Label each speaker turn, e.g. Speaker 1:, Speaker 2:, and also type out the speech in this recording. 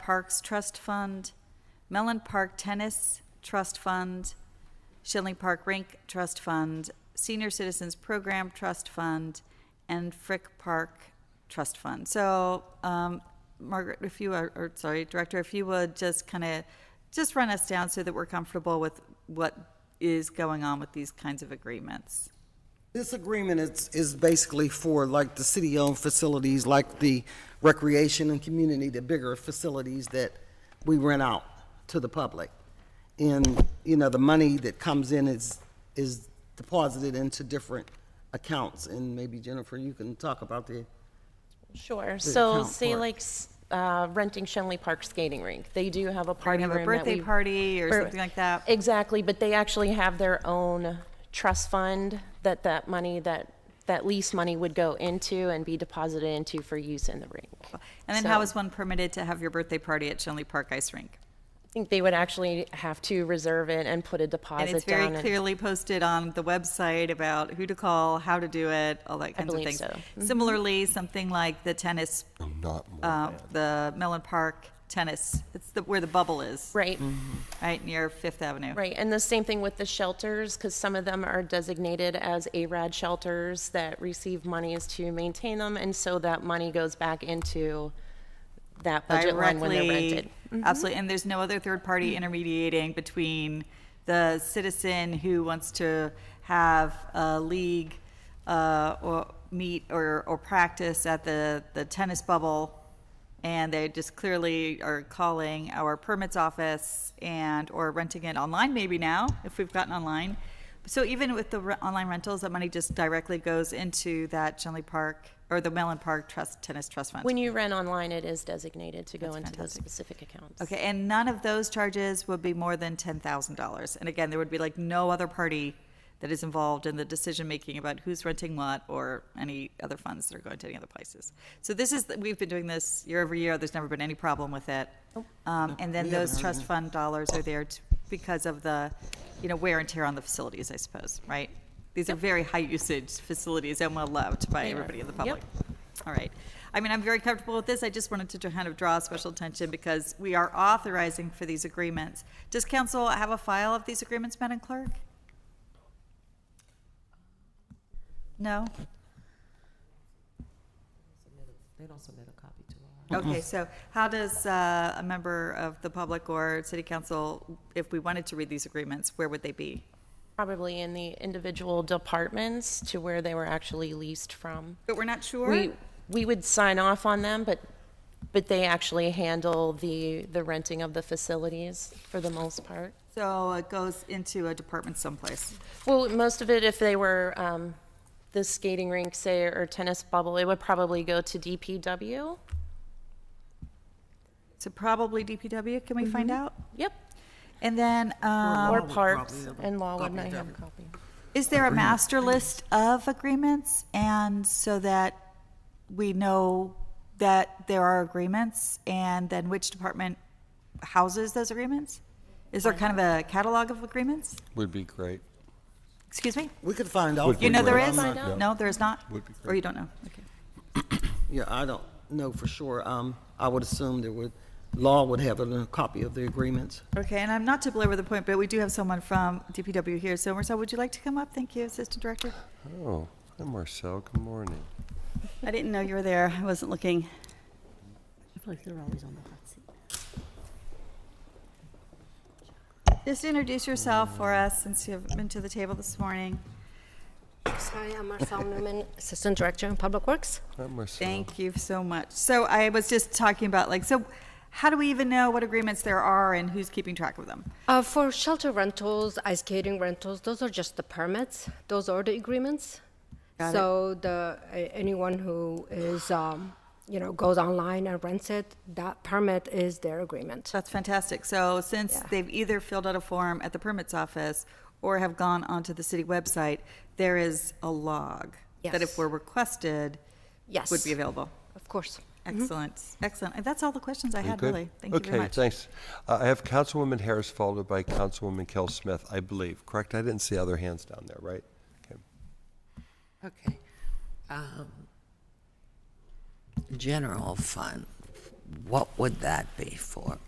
Speaker 1: Parks Trust Fund, Mellon Park Tennis Trust Fund, Schilling Park Rink Trust Fund, Senior Citizens Program Trust Fund, and Frick Park Trust Fund. So, um, Margaret, if you are, or sorry, Director, if you would just kind of, just run us down so that we're comfortable with what is going on with these kinds of agreements.
Speaker 2: This agreement is, is basically for like the city-owned facilities, like the recreation and community, the bigger facilities that we rent out to the public. And, you know, the money that comes in is, is deposited into different accounts. And maybe Jennifer, you can talk about the,
Speaker 3: Sure, so
Speaker 2: account
Speaker 3: say
Speaker 2: for it.
Speaker 3: like s- uh, renting Shenley Park Skating Rink, they do have a party
Speaker 1: have
Speaker 3: room
Speaker 1: a
Speaker 3: that we.
Speaker 1: birthday party or
Speaker 3: Bir-
Speaker 1: something like that.
Speaker 3: Exactly, but they actually have their own trust fund that that money, that, that lease money would go into and be deposited into for use in the rink.
Speaker 1: And then how
Speaker 3: So-
Speaker 1: is one permitted to have your birthday party at Shenley Park Ice Rink?
Speaker 3: I think they would actually have to reserve it and put a
Speaker 1: And it's
Speaker 3: deposit
Speaker 1: very
Speaker 3: down. and-
Speaker 1: clearly posted on the website about who to call, how to do it, all that kinds of
Speaker 3: believe
Speaker 1: things.
Speaker 3: so. Mm-hmm.
Speaker 1: Similarly, something like the tennis,
Speaker 4: I'm not more
Speaker 1: uh,
Speaker 4: mad.
Speaker 1: the Mellon Park tennis, it's the, where the bubble is,
Speaker 3: Right,
Speaker 1: right near Fifth Avenue.
Speaker 3: right, and the same thing with the shelters, because some of them are designated as ARAD shelters that receive monies to maintain them, and so that money goes back into that budget line when they're rented.
Speaker 1: Directly, absolutely. And there's no other third party intermediating between the citizen who wants to have a league uh, or meet or, or practice at the, the tennis bubble. And they just clearly are calling our permits office and or renting it online maybe now if we've gotten online. So even with the re- online rentals, that money just directly goes into that Shenley Park or the Mellon Park Trust Tennis Trust Fund.
Speaker 3: When you rent online, it is designated to go into those
Speaker 1: fantastic.
Speaker 3: specific accounts.
Speaker 1: Okay, and none of those charges would be more than ten thousand dollars. And again, there would be like no other party that is involved in the decision making about who's renting what or any other funds that are going to any other places. So this is we've been doing this year over year. There's never been any problem with it. Um, and then those trust fund dollars are there to, because of the, you know, wear and tear on the facilities, I suppose, right? These are very high usage facilities and well loved by
Speaker 3: They are.
Speaker 1: everybody in the
Speaker 3: Yep.
Speaker 1: public. All right. I mean, I'm very comfortable with this. I just wanted to kind of draw special attention because we are authorizing for these agreements. Does council have a file of these agreements, Madam Clerk? No?
Speaker 5: They don't submit a copy to us.
Speaker 3: Mm-hmm.
Speaker 1: Okay, so how does uh, a member of the public or city council, if we wanted to read these agreements, where would they be?
Speaker 3: Probably in the individual departments to where they were actually leased from.
Speaker 1: But we're not sure?
Speaker 3: We, we would sign off on them, but, but they actually handle the, the renting of the facilities for the most part.
Speaker 1: So it goes into a department someplace.
Speaker 3: Well, most of it, if they were, um, the skating rink, say, or tennis bubble, it would probably go to DPW.
Speaker 1: So probably DPW, can we find out?
Speaker 3: Yep,
Speaker 1: And then, um,
Speaker 3: or
Speaker 2: would
Speaker 3: parks,
Speaker 2: Uh, probably have a
Speaker 3: and law would
Speaker 2: copy
Speaker 3: not
Speaker 2: of
Speaker 3: have a
Speaker 2: everything.
Speaker 3: copy.
Speaker 1: Is there a master list of agreements? And so that we know that there are agreements and then which department houses those agreements? Is there kind of a catalog of agreements?
Speaker 4: Would be great.
Speaker 1: Excuse me?
Speaker 2: we could find out.
Speaker 4: Would
Speaker 1: You know there
Speaker 4: We'll
Speaker 1: is?
Speaker 4: find out.
Speaker 1: No, there is not?
Speaker 4: Would be
Speaker 1: Or you
Speaker 4: great.
Speaker 1: don't know? Okay.
Speaker 2: Yeah, I don't know for sure. Um, I would assume there would, law would have a copy of the agreements.
Speaker 1: Okay, and I'm not to belabor the point, but we do have someone from DPW here. So Marcel, would you like to come up? Thank you, Assistant Director.
Speaker 4: Oh, hi Marcel, good morning.
Speaker 6: I didn't know you were there. I wasn't looking.
Speaker 5: I feel like they're always on the hot seat.
Speaker 1: Just introduce yourself for us since you haven't been to the table this morning.
Speaker 7: Hi, I'm Marcel Newman, Assistant Director in Public Works.
Speaker 4: Hi Marcel.
Speaker 1: Thank you so much. So I was just talking about like, so how do we even know what agreements there are and who's keeping track of them?
Speaker 7: Uh, for shelter rentals, ice skating rentals, those are just the permits. Those are the agreements.
Speaker 1: Got it.
Speaker 7: so the a- anyone who is, um, you know, goes online and rents it, that permit is their agreement.
Speaker 1: That's fantastic. So since
Speaker 7: Yeah.
Speaker 1: they've either filled out a form at the permits office or have gone onto the city website, there is a log that if
Speaker 7: Yes.
Speaker 1: we're requested
Speaker 7: Yes. Mm-hmm.
Speaker 1: would be available.
Speaker 7: Of course.
Speaker 1: Excellent, excellent. And that's all the questions I
Speaker 4: You
Speaker 1: had,
Speaker 4: good?
Speaker 1: really. Thank you very
Speaker 4: Okay,
Speaker 1: much.
Speaker 4: thanks. Uh, I have Councilwoman Harris followed by Councilwoman Kell Smith, I believe, correct? I didn't see other hands down there, right? Okay.
Speaker 5: Okay. Um, General fund, what would that be for?